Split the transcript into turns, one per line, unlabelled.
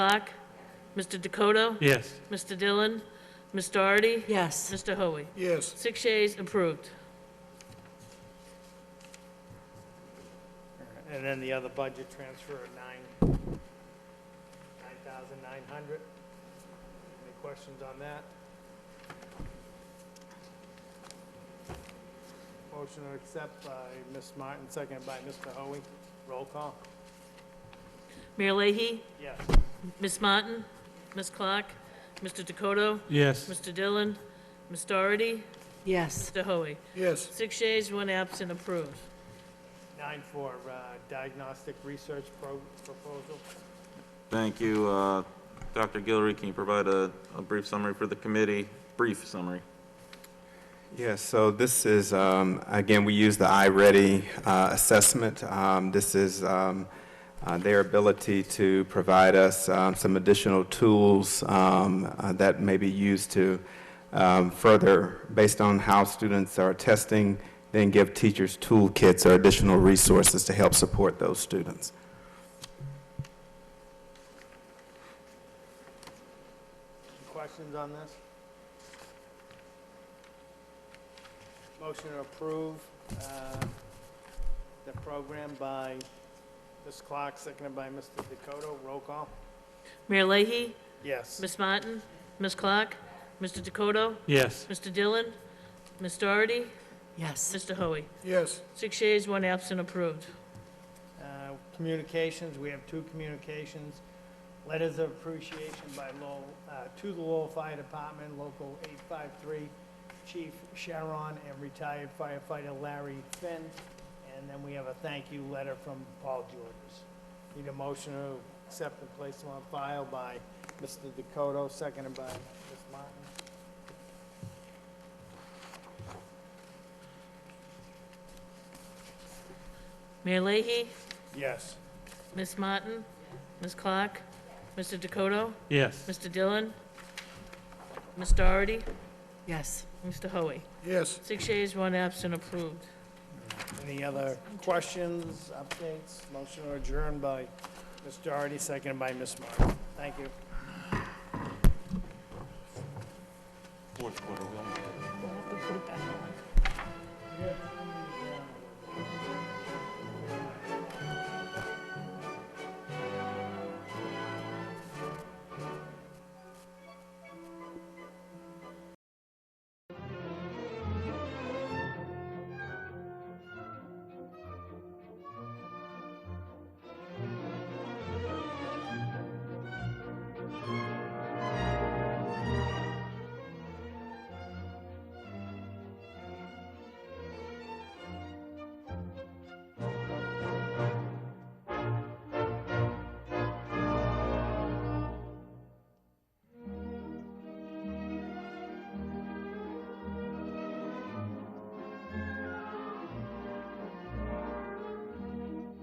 Black, Mr. Dakota,
Yes.
Mr. Dillon, Ms. Doherty,
Yes.
Mr. Hoey.
Yes.
Six yeas, approved.
And then the other budget transfer of nine, nine thousand nine hundred. Any questions on that? Motion to accept by Ms. Martin, seconded by Mr. Hoey. Roll call.
Mayor Leahy,
Yes.
Ms. Martin, Ms. Clark, Mr. Dakota,
Yes.
Mr. Dillon, Ms. Doherty,
Yes.
Mr. Hoey.
Yes.
Six yeas, one absent, approved.
Nine for uh, diagnostic research pro- proposal.
Thank you. Uh, Dr. Guillory, can you provide a a brief summary for the committee? Brief summary.
Yeah, so this is, um, again, we use the iReady uh, assessment. Um, This is um, uh, their ability to provide us um, some additional tools um, uh, that may be used to um, further, based on how students are testing, then give teachers toolkits or additional resources to help support those students.
Any questions on this? Motion to approve uh, the program by Ms. Clark, seconded by Mr. Dakota. Roll call?
Mayor Leahy,
Yes.
Ms. Martin, Ms. Clark, Mr. Dakota,
Yes.
Mr. Dillon, Ms. Doherty,
Yes.
Mr. Hoey.
Yes.
Six yeas, one absent, approved.
Uh, Communications, we have two communications. Letters of appreciation by Lowell, uh, to the Lowell Fire Department, Local 853, Chief Sharon and retired firefighter Larry Finn. And then we have a thank you letter from Paul Georges. Need a motion to accept and place them on file by Mr. Dakota, seconded by Ms. Martin.
Mayor Leahy,
Yes.
Ms. Martin, Ms. Clark, Mr. Dakota,
Yes.
Mr. Dillon, Ms. Doherty,
Yes.
Mr. Hoey.
Yes.
Six yeas, one absent, approved.
Any other questions, updates? Motion to adjourn by Ms. Doherty, seconded by Ms. Martin. Thank you.